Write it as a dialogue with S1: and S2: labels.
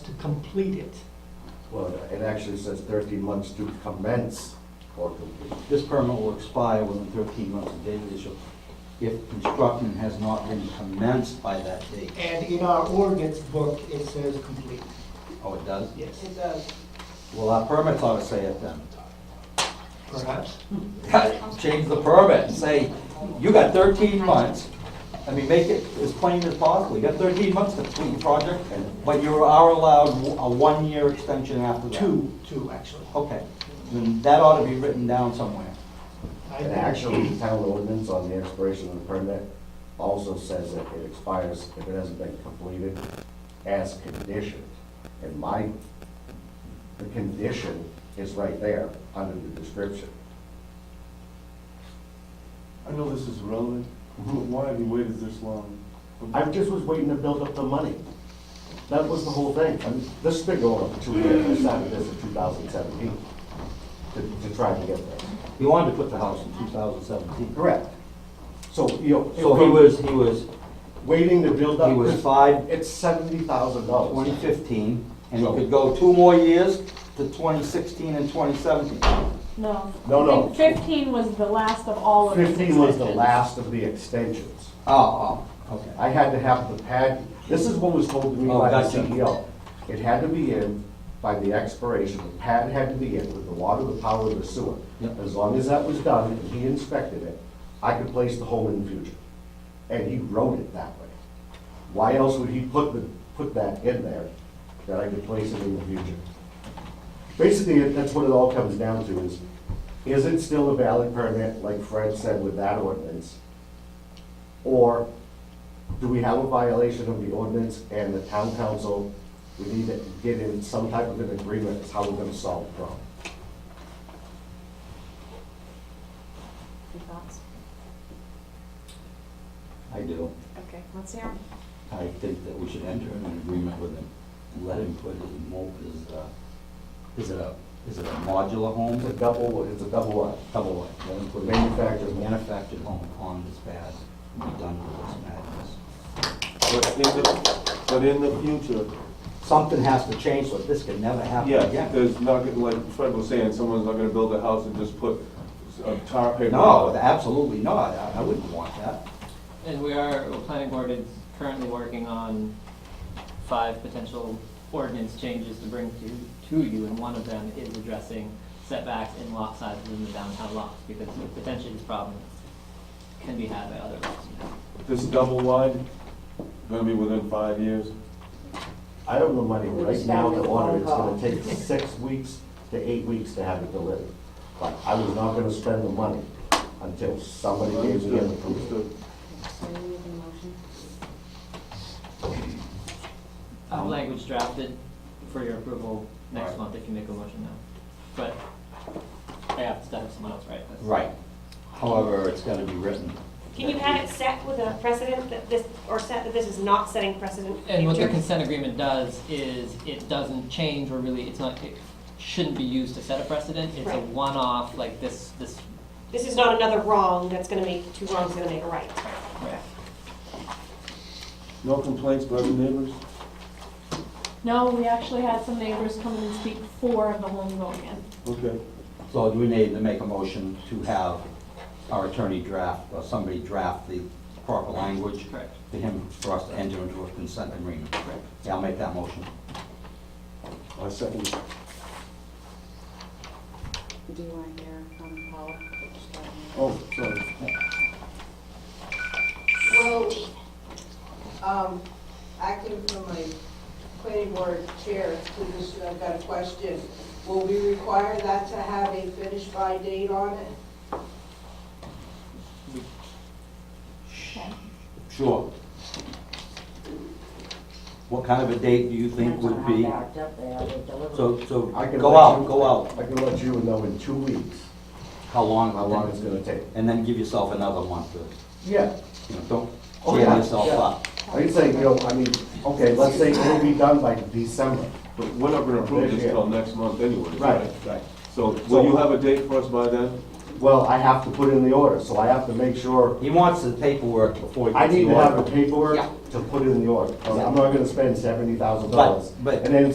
S1: complete it.
S2: Well, it actually says thirteen months to commence or complete.
S3: This permit will expire within thirteen months of date of issue if construction has not been commenced by that date.
S4: And in our ordinance book, it says complete.
S3: Oh, it does?
S4: Yes. It does.
S3: Well, our permits ought to say it then.
S4: Perhaps.
S3: Change the permit and say, you got thirteen months. I mean, make it as plain as possible. You got thirteen months to complete the project, but you are allowed a one-year extension after that.
S4: Two, two, actually.
S3: Okay, then that ought to be written down somewhere.
S4: I
S2: And
S4: think-
S2: actually, the town ordinance on the expiration of the permit also says that it expires if it hasn't been completed as conditioned. And my, the condition is right there under the description.
S5: I know this is relevant, but why have you waited this long?
S2: I just was waiting to build up the money. That was the whole thing. And this has been going on for two years. I started this in two thousand seventeen to, to try to get there.
S3: He wanted to put the house in two thousand seventeen.
S2: Correct. So, you know.
S3: So he was, he was,
S2: Waiting to build up.
S3: he was
S2: this-
S3: five
S2: It's seventy thousand dollars.
S3: 2015, and it could go two more years to 2016 and 2017.
S6: No.
S2: No, no.
S6: Fif- Fifteen was the last of all of his
S2: Fifteen was the
S6: extensions.
S2: last of the extensions.
S3: Oh, oh, okay.
S2: I had to have the pad, this is what was told to me
S3: Oh,
S2: by the
S3: gotcha.
S2: CEO. It had to be in by the expiration, the pad had to be in with the water, the power, the sewer.
S3: Yep.
S2: As long as that was done and he inspected it, I could place the home in the future. And he wrote it that way. Why else would he put the, put that in there, that I could place it in the future? Basically, it- that's what it all comes down to is, is it still a valid permit, like Fred said with that ordinance? Or do we have a violation of the ordinance and the town council? We need to get in some type of an agreement as how we're gonna solve the problem.
S6: Your thoughts?
S3: I do.
S6: Okay, let's hear 'em.
S3: I think that we should enter an agreement with him and let him put his mo, his, uh, is it a, is it a modular
S2: It's a
S3: home?
S2: double, it's a double what?
S3: Double wide. Let him put a
S2: Manufactured.
S3: Manufactured home on this pad and be done with this madness.
S5: But in the, but in the future,
S3: Something has to change, so this can never happen
S5: yeah,
S3: again.
S5: there's not, gonna- like Fred was saying, someone's not gonna build a house and just put a tar paper.
S3: No, absolutely not. I I wouldn't want that.
S7: And we are, the planning board is currently working on five potential ordinance changes to bring to, to you, and one of them is addressing setbacks in lot sizes in the downtown lots, because potentially this problem can be had by other lots now.
S5: This double wide, gonna be within five years.
S2: I don't know money right now to order, it's gonna take six weeks to eight weeks to have it delivered. But I was not gonna spend the money until somebody gave me an approval.
S5: Understood.
S6: So you need a motion?
S7: I have language drafted for your approval next
S3: Right.
S7: month if you make a motion now. But I have to have someone else write this.
S3: Right. However, it's gotta be written.
S8: Can you have it set with a precedent that this, or set that this is not setting precedent? for
S7: And what the
S8: future?
S7: consent agreement does is it doesn't change or really, it's not, it shouldn't be used to set a precedent. It's a
S8: Right.
S7: one-off, like this, this,
S8: This is not another wrong that's gonna make, two wrongs gonna make a right.
S5: No complaints by the neighbors?
S6: No, we actually had some neighbors come in and speak for the home going in.
S5: Okay.
S3: So do we need to make a motion to have our attorney draft, or somebody draft the proper language?
S7: Correct.
S3: For him, for us to enter into a consent agreement?
S7: Correct.
S3: Yeah, I'll make that motion.
S5: I second. it.
S6: Do you want to hear from Paula? Just let me-
S5: Oh, sorry.
S9: Well, um, acting from my planning board chair position, I've got a question. Will we require that to have a finish by date on it?
S3: Sure. What kind of a date do you think would be? So, so,
S2: I can
S3: go
S2: let
S3: out,
S2: you-
S3: go out,
S2: I can let you know in two weeks
S3: how long,
S2: how long it's gonna take.
S3: And then give yourself another month, to,
S2: Yeah,
S3: you know, don't
S2: Oh,
S3: jam
S2: yeah,
S3: yourself
S2: yeah.
S3: up.
S2: I can say, you know, I mean, okay, let's say it'll be done by December.
S5: But we're not gonna approve this till next month anyway.
S2: right.
S5: So will you have a date for us by then?
S2: Well, I have to put in the order, so I have to make sure,
S3: He wants the paperwork before he
S2: I
S3: gets the
S2: need to
S3: order.
S2: have the paperwork to put in the order. 'cause I'm not gonna spend seventy thousand dollars.
S3: But- but-
S2: And then